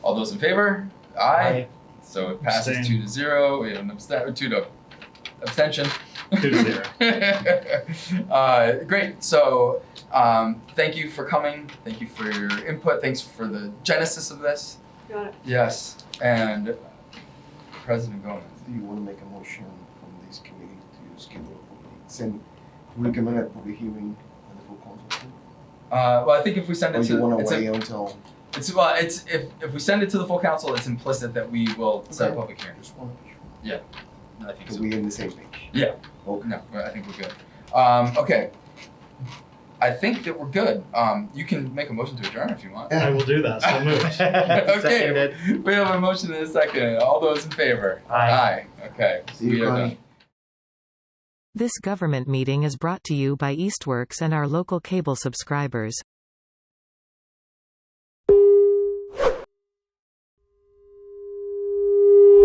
All those in favor? Aye. So it passes Abstain. two to zero. We have an abstain, two to abstention. Two to zero. uh, great. So um, thank you for coming. Thank you for your input. Thanks for the genesis of this. Got it. Yes. And President Gomez. Do you want to make a motion from this committee to schedule a public, send, recommend a public hearing at the full council? Uh, well, I think if we send Or it Oh, you to want it's, to a, wait until, it's well, it's if, if we send it to the full council, it's implicit that we will set a Okay. public hearing. just one, to be sure. I think Because so. we in the same page? Yeah. Okay. No, I think we're good. Um, okay. I think that we're good. Um, you can make a motion to adjourn if you want. I will do that, so moved. okay. We have a motion in a second. All those in favor? Aye. Okay. See you, we are Connie. done. This government meeting is brought to you by Eastworks and our local cable subscribers.